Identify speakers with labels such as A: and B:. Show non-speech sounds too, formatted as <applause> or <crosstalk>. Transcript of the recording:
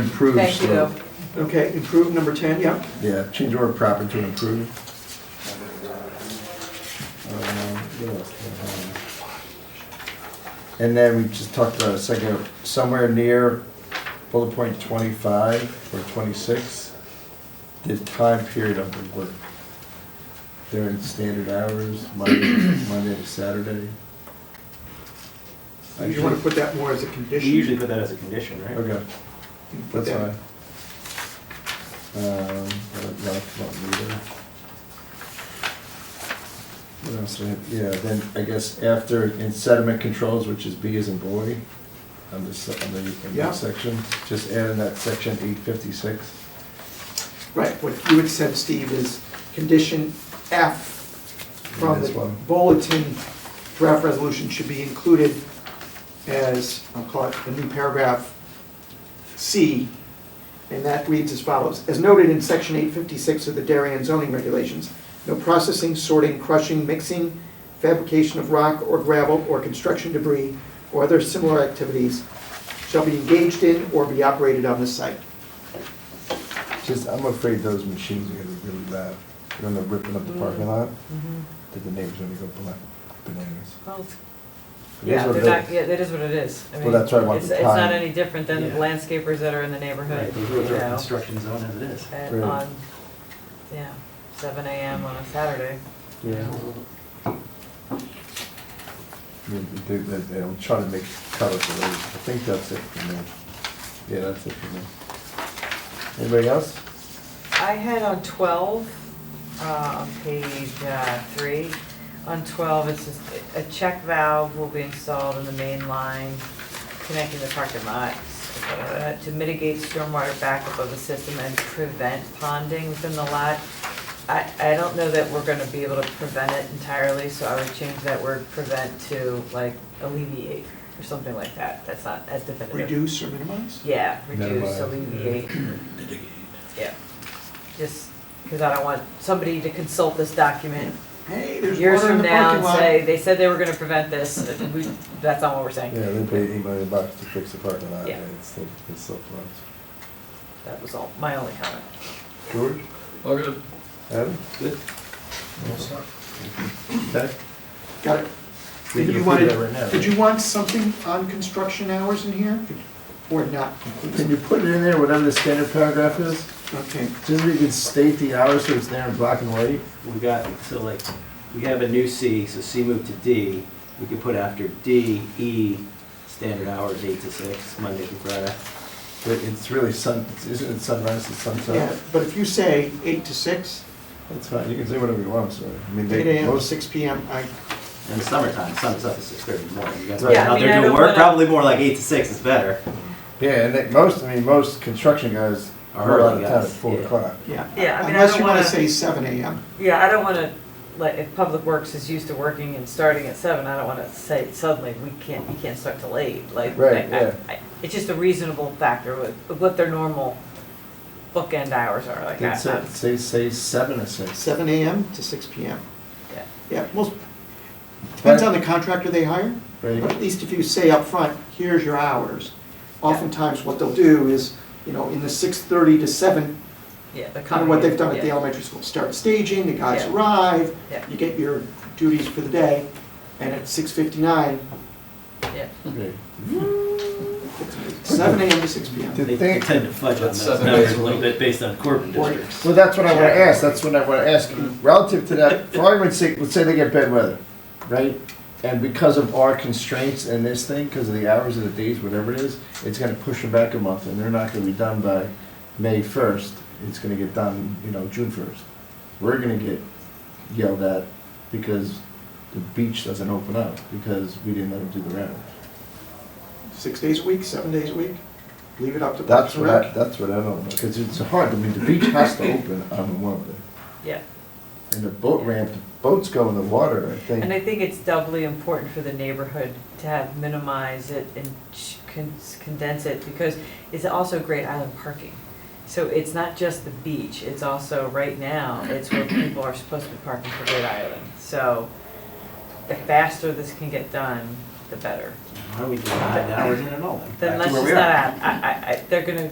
A: Improve.
B: Thank you.
A: so-
C: Okay, improve number 10, yeah.
A: Yeah, change order proper to improve. Um, what else? Um, And then we just talked about a second, somewhere near bullet point twenty-five or twenty-six, the time period of the work. During standard hours, Monday, <coughs> Monday to Saturday.
C: You want to put that more as a
D: We
C: condition?
D: usually put that as a condition, right?
A: Okay.
C: You can put
A: That's
C: that.
A: fine. Um, I don't know if I want me to- What else do I have? Yeah, then I guess after in sediment controls, which is B as in boy, on this, on the, in
C: Yeah.
A: this section, just add in that section eight fifty-six.
C: Right, what you had said, Steve, is condition F from
A: This
C: the
A: one.
C: bulletin draft resolution should be included as, I'll call it, the new paragraph C, and that reads as follows. As noted in section 856 of the Darien zoning regulations, no processing, sorting, crushing, mixing, fabrication of rock or gravel or construction debris or other similar activities shall be engaged in or be operated on this site.
A: Just, I'm afraid those machines are gonna be really loud, when they're ripping up the
B: Mm-hmm.
A: parking lot, that the neighbors are gonna go black bananas.
B: Well, it's-
A: It is
B: Yeah,
A: what
B: they're
A: it
B: not,
A: is.
B: yeah, that is what it is. I
A: Well,
B: mean,
A: that's why I wanted
B: It's,
A: the
B: it's not
A: time.
B: any different than the
D: Yeah.
B: landscapers that are in the
D: Right,
B: neighborhood,
D: they
B: you
D: go through a
B: know,
D: construction zone as it is.
B: at-
A: Right.
B: on, yeah, seven AM on a Saturday.
A: Yeah. I mean, They, they, they don't try to make color for those. I think that's it for me. Yeah, that's it for me. Anybody else?
B: I had on twelve, uh, on page, uh, three, on twelve, it's just, a check valve will be installed in the main line connecting the parking lot uh, to mitigate stormwater backup of the system and prevent ponding within the lot. I, I don't know that we're gonna be able to prevent it entirely, so I would change that word prevent to like alleviate or something like that. That's not as definitive.
C: Reduce or minimize?
B: Yeah, reduce,
A: Minimize,
B: alleviate.
A: <clears throat>
B: Yeah, just, because I don't want somebody to consult this document
C: Hey, there's
B: years
C: water in
B: from
C: the
B: now
C: parking
B: and
C: lot.
B: say, they said they were gonna prevent this, and we, that's not what we're saying.
A: Yeah, they paid eight million bucks to fix the parking lot.
B: Yeah.
A: and It's still, it's still floods.
B: That was all, my only comment.
A: George?
E: All good.
A: Adam?
D: Good.
A: Okay.
C: Got it.
A: We can
C: Did you
A: approve
C: wanted-
A: that right now,
C: Did
A: right?
C: you want something on construction hours in here? Or not?
A: Can you put it in there, whatever the standard paragraph is?
C: Okay,
A: Just so you can state the hours so it's there in black and white?
D: We got, so like, we have a new C, so C moved to D. We could put after D, E, standard hours, eight to six, Monday through Friday.
A: But it's really sun, isn't it sunrise to
C: yeah,
A: sunset?
C: but if you say eight to six,
A: That's fine. You can say whatever you want, so. I mean,
C: eight
A: they,
C: AM to
A: most,
C: six PM, I,
D: In the summertime, sun's up at six thirty in the morning. You guys
A: Right.
D: are
A: Yeah, I
D: out
B: mean, I
D: there doing
B: don't
D: work,
B: wanna-
D: probably more like eight to six is better.
A: yeah, and they, most, I mean, most construction guys
D: Are
A: are out of
D: early
A: town at
D: guys,
A: four
D: yeah.
A: o'clock.
C: yeah.
B: Yeah, I mean, I
C: Unless
B: don't
C: you wanna
B: wanna-
C: say seven AM.
B: Yeah, I don't wanna, like, if Public Works is used to working and starting at seven, I don't wanna say suddenly, we can't, you can't start till eight, like.
A: Right,
B: I- I-
A: yeah.
B: I- It's just a reasonable factor with, with what their normal bookend hours are, like, I,
A: It's uh,
B: I-
A: say, say seven or six.
C: Seven AM to six PM.
B: yeah.
C: Yeah, most, depends on the contractor they hire,
A: Right,
C: but at least if you say up front, here's your hours. Oftentimes what they'll do is, you know, in the six thirty to seven,
B: Yeah, the
C: kind of what they've done at the
B: yeah.
C: elementary school, start staging, the guys
B: Yeah.
C: arrive,
B: Yeah.
C: you get your duties for the day, and at six fifty-nine,
B: Yeah,
A: right.
C: seven AM to six PM.
A: Did
D: They
A: they-
D: tend to fudge on
E: That's
D: those
E: seven
D: numbers
E: days
D: a
E: a
D: little
E: week.
D: bit based on Corbin
C: Or-
D: districts.
A: Well, that's what I want to ask, that's what I want to ask. Relative to that, for argument's sake, let's say they get bad weather, right? And because of our constraints and this thing, because of the hours of the days, whatever it is, it's gonna push them back a month, and they're not gonna be done by May first. It's gonna get done, you know, June first. We're gonna get yelled at because the beach doesn't open up, because we didn't let them do the round.
C: Six days a week, seven days a week, leave it up to Parks
A: That's
C: and
A: what I,
C: Rec.
A: that's what I don't know, because it's hard, I mean, the beach has to open on one of them.
B: yeah.
A: And the boat ramp, the boats go in the water, I
B: And I
A: think.
B: think it's doubly important for the neighborhood to have minimize it and ch- con- condense it because it's also great island parking. So it's not just the beach, it's also, right now, it's where people are supposed to be parking for Great Island. So the faster this can get done, the better.
D: Why are we doing nine hours in at all then?
B: Then
D: Back
B: let's
D: to where
B: just
D: we
B: not
D: are.
B: add, I, I, I, they're gonna,